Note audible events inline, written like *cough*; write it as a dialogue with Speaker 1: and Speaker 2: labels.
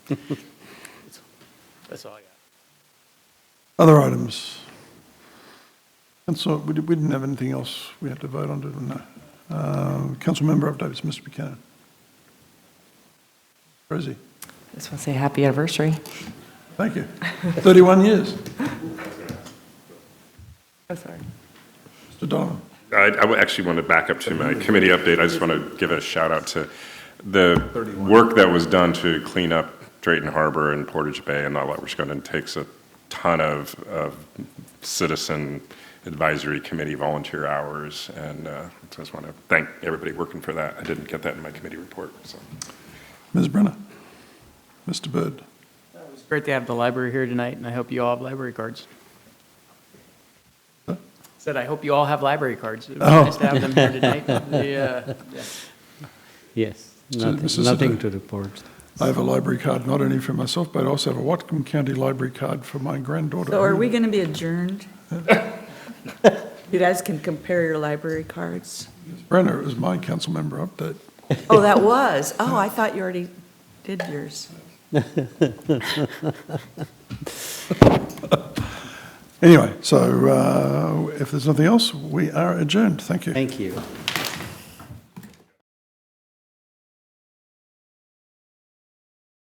Speaker 1: That's all I got.
Speaker 2: Other items? And so we di- we didn't have anything else we had to vote on, did we? No. Uh, Council member updates, Mr. Buchanan. Where is he?
Speaker 3: Just want to say happy anniversary.
Speaker 2: Thank
Speaker 4: *laughs*
Speaker 2: you. 31 years.
Speaker 4: Oh,
Speaker 3: I'm sorry.
Speaker 2: Mr. Donovan.
Speaker 5: I, I would actually want to back up to my committee update. I just want to give a shout out to the work that was done to clean up Drayton Harbor and Portage Bay and all that, which going to takes a ton of, of citizen advisory committee volunteer hours. And uh, so I just want to thank everybody working for that. I didn't get that in my committee report, so.
Speaker 2: Ms. Brenner. Mr. Byrd.
Speaker 1: It's great to have the library here tonight, and I hope you all have library cards.
Speaker 2: Huh?
Speaker 1: Said, I hope you all have library cards. It was
Speaker 2: Oh.
Speaker 1: nice to have them here
Speaker 2: *laughs*
Speaker 1: tonight. The, uh, yeah.
Speaker 6: Yes,
Speaker 2: So, Mr.
Speaker 6: nothing, nothing
Speaker 2: Siddle.
Speaker 6: to report.
Speaker 2: I have a library card, not only for myself, but I also have a Watcom County library card for my granddaughter.
Speaker 4: So are we going to
Speaker 3: *laughs*
Speaker 4: be adjourned? You guys can compare your library cards.
Speaker 2: Ms. Brenner, it was my council member update.
Speaker 4: Oh, that was. Oh, I thought you already did yours.
Speaker 2: Anyway, so uh, if there's nothing else, we are adjourned. Thank you.
Speaker 6: Thank you.